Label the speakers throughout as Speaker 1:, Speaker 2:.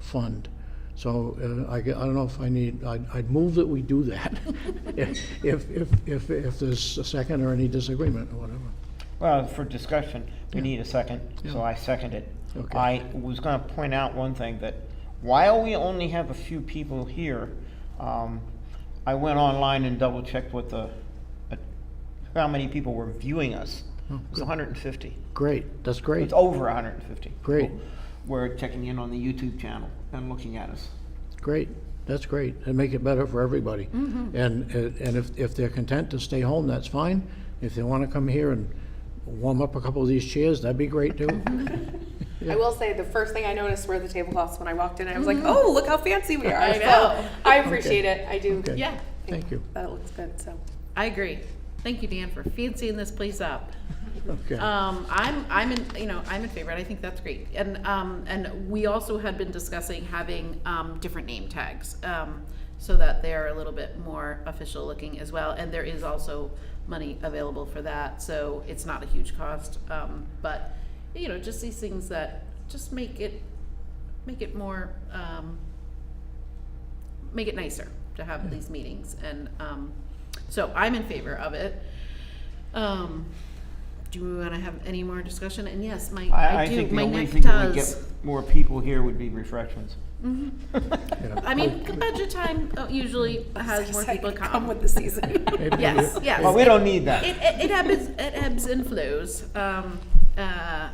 Speaker 1: fund. So uh, I, g- I don't know if I need, I'd, I'd move that we do that, if, if, if- if, if there's a second or any disagreement or whatever.
Speaker 2: Well, for discussion, we
Speaker 1: Yeah.
Speaker 2: need a second, so
Speaker 1: Yeah.
Speaker 2: I second it.
Speaker 1: Okay.
Speaker 2: I was gonna point out one thing, that while we only have a few people here, um, I went online and double-checked what the, uh, how many people were viewing us.
Speaker 3: Oh,
Speaker 2: It was hundred and fifty.
Speaker 1: Great, that's great,
Speaker 2: It's over hundred and fifty.
Speaker 1: Great.
Speaker 2: We're checking in on the YouTube channel and looking at us.
Speaker 1: great, that's great, and make it better for everybody.
Speaker 3: Mm-hmm.
Speaker 1: And, uh, and if, if they're content to stay home, that's fine. If they want to come here and warm up a couple of these chairs, that'd be great too.
Speaker 4: I will say the first thing I noticed were the tablecloths when I walked in. I was like, oh, look how fancy we are.
Speaker 3: I
Speaker 4: So,
Speaker 3: know.
Speaker 4: I appreciate it. I do.
Speaker 1: Okay.
Speaker 3: Yeah,
Speaker 1: Thank you,
Speaker 4: That looks good. So
Speaker 3: I agree. Thank you, Dan, for fancying this place up.
Speaker 1: okay.
Speaker 3: Um, I'm, I'm in, you know, I'm in favor, and I think that's great. And, um, and we also had been discussing having, um, different name tags, um, so that they're a little bit more official looking as well. And there is also money available for that, so it's not a huge cost. Um, but, you know, just these things that just make it, make it more, um, make it nicer to have these meetings. And, um, so I'm in favor of it. Um, do we want to have any more discussion? And yes, my, I,
Speaker 2: I, I
Speaker 3: do.
Speaker 2: think the
Speaker 3: my
Speaker 2: only
Speaker 3: neck
Speaker 2: thing that would get
Speaker 3: does.
Speaker 2: more people here would be refreshments.
Speaker 1: Yeah.
Speaker 3: I mean, the budget time uh, usually has more
Speaker 4: It's like,
Speaker 3: people come.
Speaker 4: come with the season.
Speaker 1: Maybe we-
Speaker 3: yes, yes.
Speaker 2: But we don't need that.
Speaker 3: It, it, it ebbs, it ebbs and flows. Um, uh,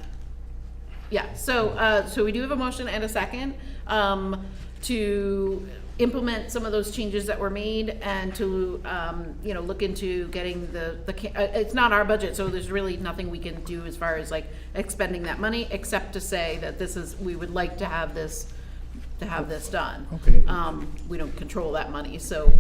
Speaker 3: yeah, so, uh, so we do have a motion and a second, um, to implement some of those changes that were made and to, um, you know, look into getting the, the, ca- uh, it's not our budget, so there's really nothing we can do as far as like expending that money, except to say that this is, we would like to have this, to have this done.
Speaker 1: Okay.
Speaker 3: Um, we don't control that money, so,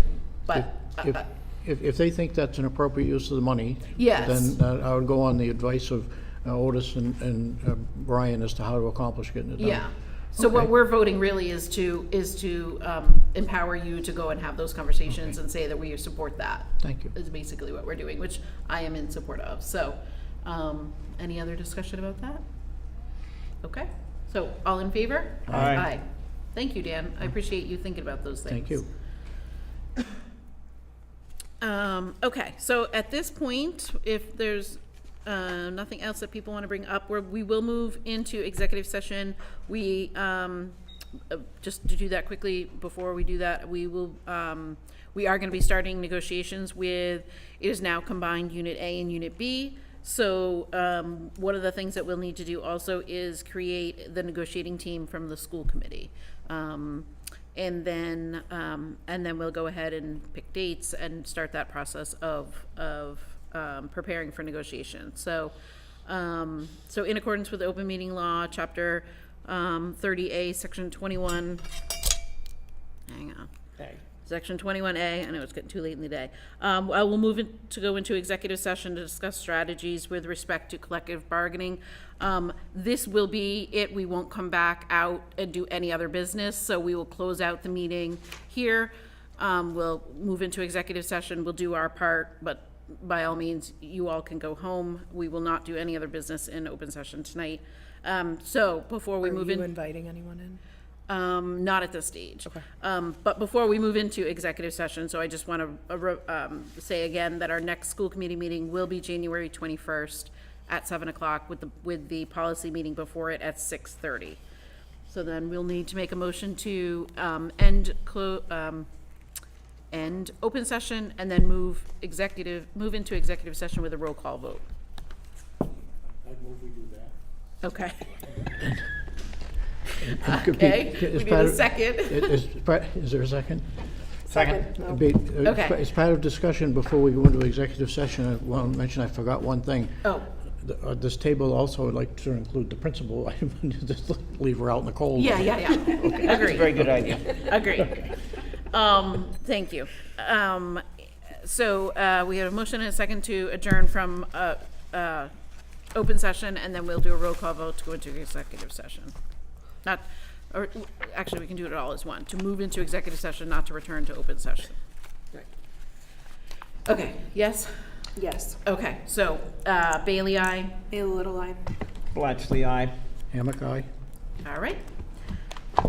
Speaker 3: but,
Speaker 1: If-
Speaker 3: uh,
Speaker 1: If, if they think that's an appropriate use of the money.
Speaker 3: Yes.
Speaker 1: Then uh, I would go on the advice of uh, Otis and, and uh, Brian as to how to accomplish getting it done.
Speaker 3: Yeah. So what
Speaker 1: um, Okay.
Speaker 3: we're voting really is to, is to um, empower you to go and have those conversations and say that we support that,
Speaker 1: Thank you.
Speaker 3: is basically what we're doing, which I am in support of. So, um, any other discussion about that? Okay, so all in favor?
Speaker 2: Aye.
Speaker 3: Thank you, Dan. I appreciate you thinking about those things.
Speaker 1: Thank you.
Speaker 3: Um, okay, so at this point, if there's, uh, nothing else that people want to bring up, where we will move into executive session. We, um, uh, just to do that quickly, before we do that, we will, um, we are going to be starting negotiations with, it is now combined Unit A and Unit B. So, um, one of the things that we'll need to do also is create the negotiating team from the school committee. Um, and then, um, and then we'll go ahead and pick dates and start that process of, of, um, preparing for negotiation. So, um, so in accordance with the open meeting law, chapter, um, thirty A, section twenty-one, hang on.
Speaker 2: Okay.
Speaker 3: Section twenty-one A, I know it's getting too late in the day. Um, I will move in- to go into executive session to discuss strategies with respect to collective bargaining. Um, this will be it, we won't come back out and do any other business, so we will close out the meeting here. Um, we'll move into executive session, we'll do our part, but by all means, you all can go home. We will not do any other business in open session tonight. Um, so before we move in.
Speaker 4: inviting anyone in?
Speaker 3: Um, not at this stage. Um, but before we move into executive session, so I just want to, um, say again that our next school committee meeting will be January twenty-first at seven o'clock with the, with the policy meeting before it at six thirty. So then we'll need to make a motion to, um, end clo- um, end open session and then move executive, move into executive session with a roll call vote. I move we do that. Okay. Okay, we need a second.
Speaker 1: Is, is part- is there a second?
Speaker 2: Second.
Speaker 4: No.
Speaker 1: Be- uh,
Speaker 3: Okay.
Speaker 1: It's part of discussion before we go into executive session. I want to mention, I forgot one thing.
Speaker 3: Oh,
Speaker 1: The- uh, This table also would like to include the principal. I wouldn't Just leave her out in the cold.
Speaker 3: yeah, yeah, yeah. Agreed.
Speaker 2: Very good idea.
Speaker 3: Agreed. Um, thank you. Um, so, uh, we have a motion and a second to adjourn from, uh, uh, open session, and then we'll do a roll call vote to go into executive session. Not, or, actually, we can do it all as one, to move into executive session, not to return to open session. Okay, yes?
Speaker 4: Yes.
Speaker 3: Okay, so, uh, Bailey, I.
Speaker 4: A little line.
Speaker 2: Blatchley, aye.
Speaker 1: Hammock eye?
Speaker 3: All right.